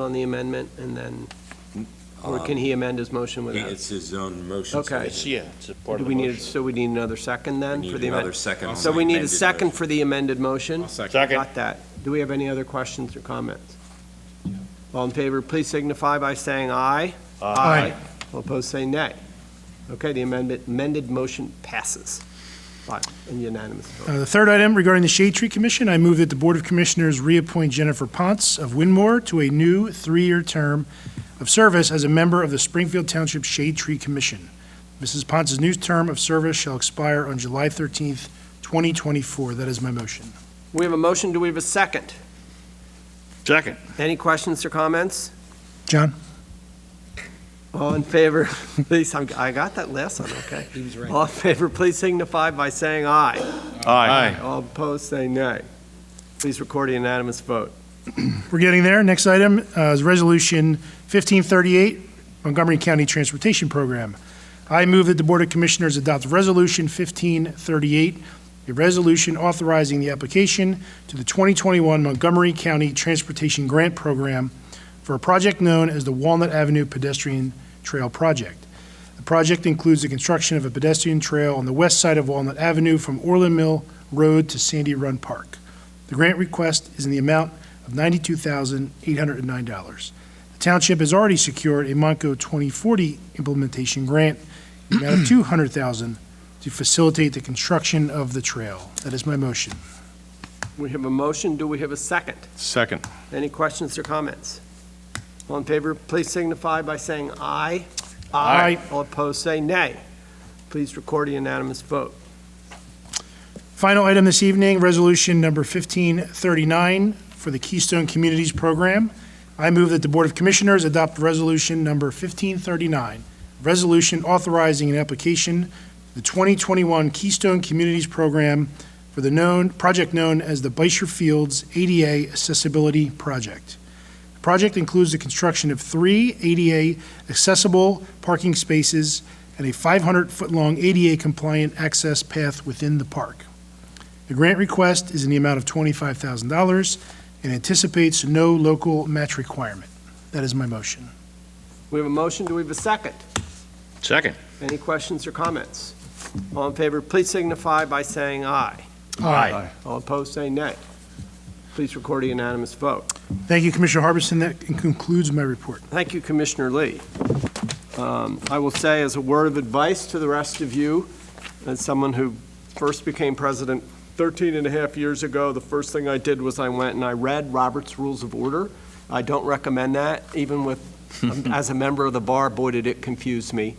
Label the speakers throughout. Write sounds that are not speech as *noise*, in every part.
Speaker 1: on the amendment, and then, or can he amend his motion
Speaker 2: Um, He-
Speaker 1: without?
Speaker 2: It's his own motion. so
Speaker 1: Okay.
Speaker 2: we
Speaker 3: Yeah, it's a part
Speaker 1: Do
Speaker 3: of
Speaker 1: we
Speaker 3: the
Speaker 1: need,
Speaker 3: motion.
Speaker 1: so we need another second then?
Speaker 2: Need
Speaker 1: for the
Speaker 2: another
Speaker 1: amendment?
Speaker 2: second. on
Speaker 1: So
Speaker 2: the
Speaker 1: we need a
Speaker 2: amended
Speaker 1: second
Speaker 2: motion.
Speaker 1: for the amended motion?
Speaker 3: Second.
Speaker 1: Got that. Do we have any other questions or comments? All in favor, please signify by saying aye.
Speaker 3: Aye.
Speaker 1: All opposed, say nay. Okay, the amendment, amended motion passes. Five, and unanimous vote.
Speaker 4: Uh, The third item regarding the Shade Tree Commission, I move that the Board of Commissioners reappoint Jennifer Ponce of Winmore to a new three-year term of service as a member of the Springfield Township Shade Tree Commission. Mrs. Ponce's new term of service shall expire on July 13th, 2024. That is my motion.
Speaker 1: We have a motion, do we have a second?
Speaker 3: Second.
Speaker 1: Any questions or comments?
Speaker 4: John?
Speaker 1: All in favor, *laughs* please, I'm- I got that last one, okay. He was right. All in favor, please signify by saying aye.
Speaker 3: Aye.
Speaker 1: All opposed, say nay. Please record a unanimous vote.
Speaker 4: We're getting there. Next item uh, is Resolution 1538, Montgomery County Transportation Program. I move that the Board of Commissioners adopt Resolution 1538, a resolution authorizing the application to the 2021 Montgomery County Transportation Grant Program for a project known as the Walnut Avenue Pedestrian Trail Project. The project includes the construction of a pedestrian trail on the west side of Walnut Avenue from Orland Mill Road to Sandy Run Park. The grant request is in the amount of $92,809. The township has already secured a Monco 2040 implementation grant in the amount of $200,000 to facilitate the construction of the trail. That is my motion.
Speaker 1: We have a motion, do we have a second?
Speaker 3: Second.
Speaker 1: Any questions or comments? All in favor, please signify by saying aye.
Speaker 3: Aye.
Speaker 1: All opposed, say nay. Please record a unanimous vote.
Speaker 4: Final item this evening, resolution number 1539 for the Keystone Communities Program. I move that the Board of Commissioners adopt resolution number 1539, resolution authorizing an application to the 2021 Keystone Communities Program for the known, project known as the Beischer Fields ADA Accessibility Project. The project includes the construction of three ADA accessible parking spaces and a 500-foot-long ADA-compliant access path within the park. The grant request is in the amount of $25,000 and anticipates no local match requirement. That is my motion.
Speaker 1: We have a motion, do we have a second?
Speaker 3: Second.
Speaker 1: Any questions or comments? All in favor, please signify by saying aye. All opposed, say nay. Please record a unanimous vote.
Speaker 4: Thank you, Commissioner Harbison. That concludes my report.
Speaker 1: Thank you, Commissioner Lee. Um, I will say as a word of advice to the rest of you, as someone who first became president 13 and a half years ago, the first thing I did was I went and I read Robert's Rules of Order. I don't recommend that, even with, as a member of the bar, boy, did it confuse me.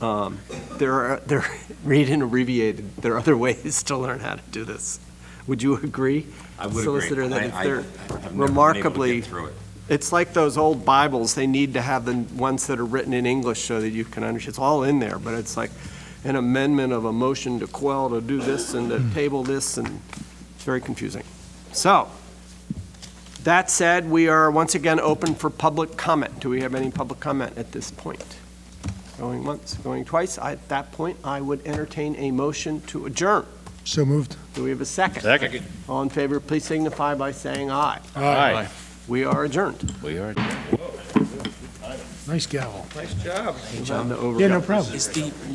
Speaker 1: Um, There are, there, *laughs* read and abbreviated, there are other *laughs* ways to learn how to do this. Would you agree?
Speaker 2: I would agree.
Speaker 1: Solicitor, that
Speaker 2: I-
Speaker 1: if
Speaker 2: I-
Speaker 1: they're
Speaker 2: I've never been able to get
Speaker 1: remarkably-
Speaker 2: through it.
Speaker 1: It's like those old Bibles, they need to have the ones that are written in English so that you can understand. It's all in there, but it's like an amendment of a motion to quell, to do this, and to table this, and it's very confusing. So, that said, we are once again open for public comment. Do we have any public comment at this point? Going once, going twice. I- At that point, I would entertain a motion to adjourn.
Speaker 4: So moved.
Speaker 1: Do we have a second?
Speaker 3: Second.
Speaker 1: All in favor, please signify by saying aye.
Speaker 3: Aye.
Speaker 1: We are adjourned.
Speaker 3: We are.
Speaker 4: Nice gavel.
Speaker 1: Time to over-
Speaker 4: Yeah, no problem.